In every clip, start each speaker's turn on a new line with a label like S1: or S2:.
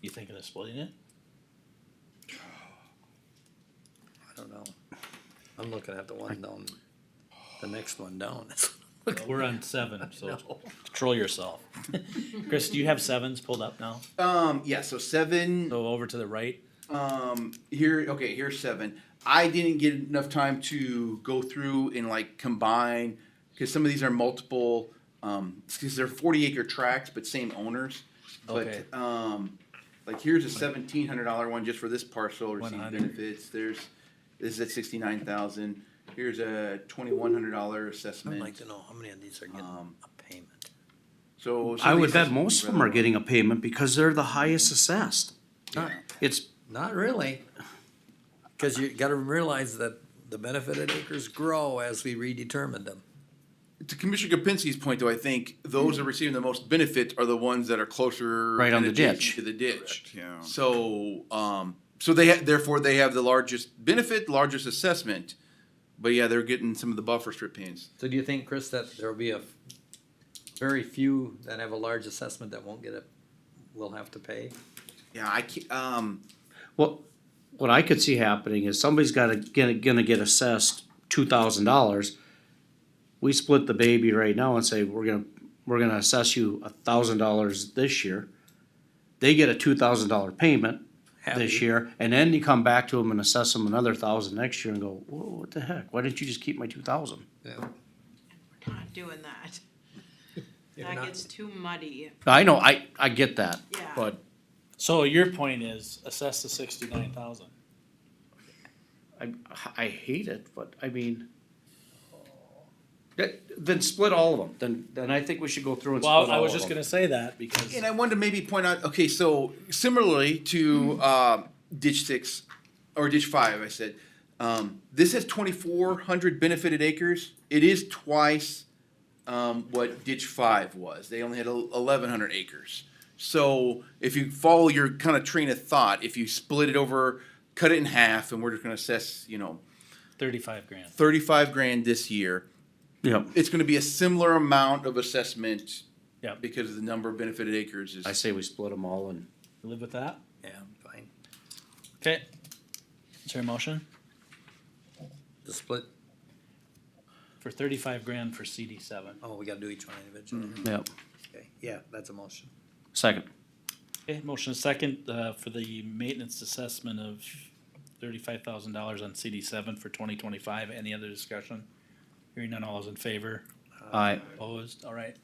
S1: You thinking of splitting it?
S2: I don't know. I'm looking at the one down, the next one down.
S1: We're on seven, so control yourself. Chris, do you have sevens pulled up now?
S3: Um, yeah, so seven,
S1: Go over to the right.
S3: um, here, okay, here's seven. I didn't get enough time to go through and like combine, because some of these are multiple, um, because they're forty acre tracts, but same owners.
S1: Okay.
S3: But, um, like here's a seventeen hundred dollar one just for this parcel receiving
S1: 100.
S3: benefits, there's, this is at sixty-nine thousand. Here's a twenty-one hundred dollar
S2: I'd like
S3: assessment,
S2: to know how many of these are getting
S3: Um,
S2: a payment.
S3: so. some
S4: I
S3: of
S4: would
S3: these
S4: bet
S3: assessments would
S4: most
S3: be
S4: of them are
S3: relevant.
S4: getting a payment because they're the highest assessed.
S2: Not,
S4: It's,
S2: not really. Cause you gotta realize that the benefited acres grow as we redetermine them.
S3: To Commissioner Kapinski's point, though, I think those that are receiving the most benefit are the ones that are closer.
S4: Right on
S3: and
S4: the
S3: adjacent
S4: ditch.
S3: To the ditch.
S5: Correct, yeah.
S3: So, um, so they, ha- therefore, they have the largest benefit, largest assessment, but yeah, they're getting some of the buffer strip pains.
S2: So do you think, Chris, that there'll be a f- very few that have a large assessment that won't get a, will have to pay?
S3: Yeah, I can't, um,
S4: what, what I could see happening is somebody's gotta, gonna, gonna get assessed two thousand dollars. We split the baby right now and say, we're gonna, we're gonna assess you a thousand dollars this year. They get a two thousand dollar payment this
S2: Happy.
S4: year, and then you come back to them and assess them another thousand next year and go, whoa, what the heck? Why didn't you just keep my two thousand?
S2: Yeah.
S6: We're not doing that.
S2: You're
S6: That
S2: not-
S6: gets too muddy,
S4: I know, I, I get that,
S6: Yeah.
S4: but
S1: So your point is assess the sixty-nine thousand.
S4: I, I hate it, but I mean. That, then split all of them, then, then I think we should go through and split all of
S1: Well,
S4: them.
S1: I was just gonna say that because
S3: and I wanted to maybe point out, okay, so similarly to, um ditch six, or ditch five, I said, um, this has twenty-four hundred benefited acres. It is twice um, what ditch five was. They only had eleven hundred acres. So if you follow your kind of train of thought, if you split it over, cut it in half, and we're just gonna assess, you know,
S1: thirty-five grand.
S3: thirty-five grand this year,
S4: Yep,
S3: it's gonna be a similar amount of assessment.
S1: Yep.
S3: Because the number of benefited acres is.
S4: I say we split them all and,
S1: You Live with that?
S2: Yeah, fine.
S1: Okay. Is there a motion
S2: The split,
S1: for thirty-five grand for CD seven?
S2: oh, we gotta do each one individually.
S4: yep,
S2: Okay, yeah, that's a motion.
S4: second.
S1: Okay, motion second, uh, for the maintenance assessment of thirty-five thousand dollars on CD seven for twenty twenty-five. Any other discussion? Hearing none, all those in favor?
S4: I,
S1: Opposed, all right.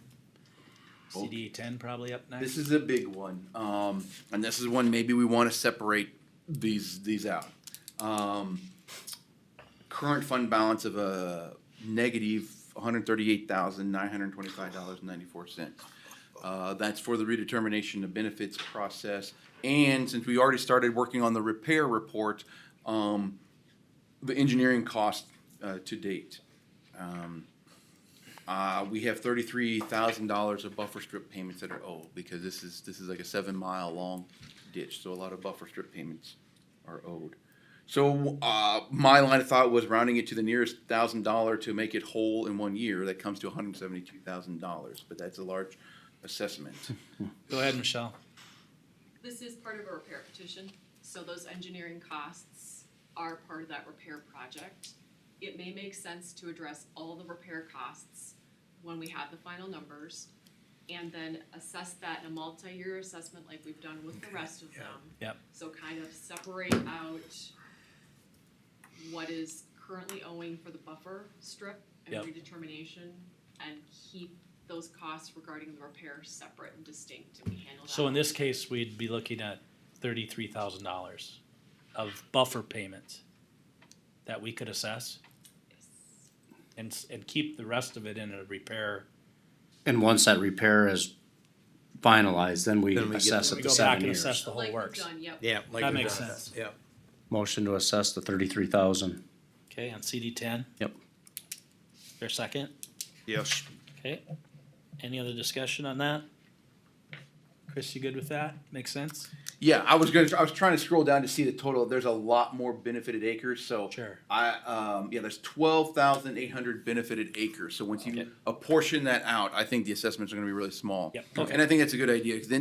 S1: CD ten probably up next.
S3: This is a big one, um, and this is one maybe we wanna separate these, these out. Um, current fund balance of a negative one hundred thirty-eight thousand nine hundred twenty-five dollars and ninety-four cents. Uh, that's for the redetermination of benefits process, and since we already started working on the repair report, um, the engineering cost, uh, to date. Um, uh, we have thirty-three thousand dollars of buffer strip payments that are owed, because this is, this is like a seven-mile-long ditch, so a lot of buffer strip payments are owed. So, uh, my line of thought was rounding it to the nearest thousand dollar to make it whole in one year, that comes to hundred and seventy-two thousand dollars, but that's a large assessment.
S1: Go ahead, Michelle.
S7: This is part of a repair petition, so those engineering costs are part of that repair project. It may make sense to address all the repair costs when we have the final numbers and then assess that in a multi-year assessment like we've done with the rest of them.
S1: Yep.
S7: So kind of separate out what is currently owing for the buffer strip and
S1: Yep.
S7: redetermination and keep those costs regarding the repair separate and distinct and we handle that.
S1: So in this case, we'd be looking at thirty-three thousand dollars of buffer payments that we could assess and, s- and keep the rest of it in a repair.
S4: and once that repair is finalized, then we
S2: Then we get-
S4: assess
S1: We
S4: it to
S1: go back
S4: seven
S1: and
S4: years.
S1: assess the whole
S7: Like we've
S1: works.
S7: done, yep.
S2: Yeah. like
S1: That
S2: we've
S1: makes
S2: done.
S1: sense.
S2: Yeah.
S4: Motion to assess the thirty-three thousand.
S1: Okay, on CD ten?
S4: Yep.
S1: Your second?
S5: Yes.
S1: Okay. Any other discussion on that? Chris, you good with that? Makes sense?
S3: Yeah, I was gonna, I was trying to scroll down to see the total, there's a lot more benefited acres, so.
S1: Sure.
S3: I, um, yeah, there's twelve thousand eight hundred benefited acres, so once you apportion that out, I think the assessments are gonna be really small.
S1: Yep, okay.
S3: And I think that's a good idea, 'cause then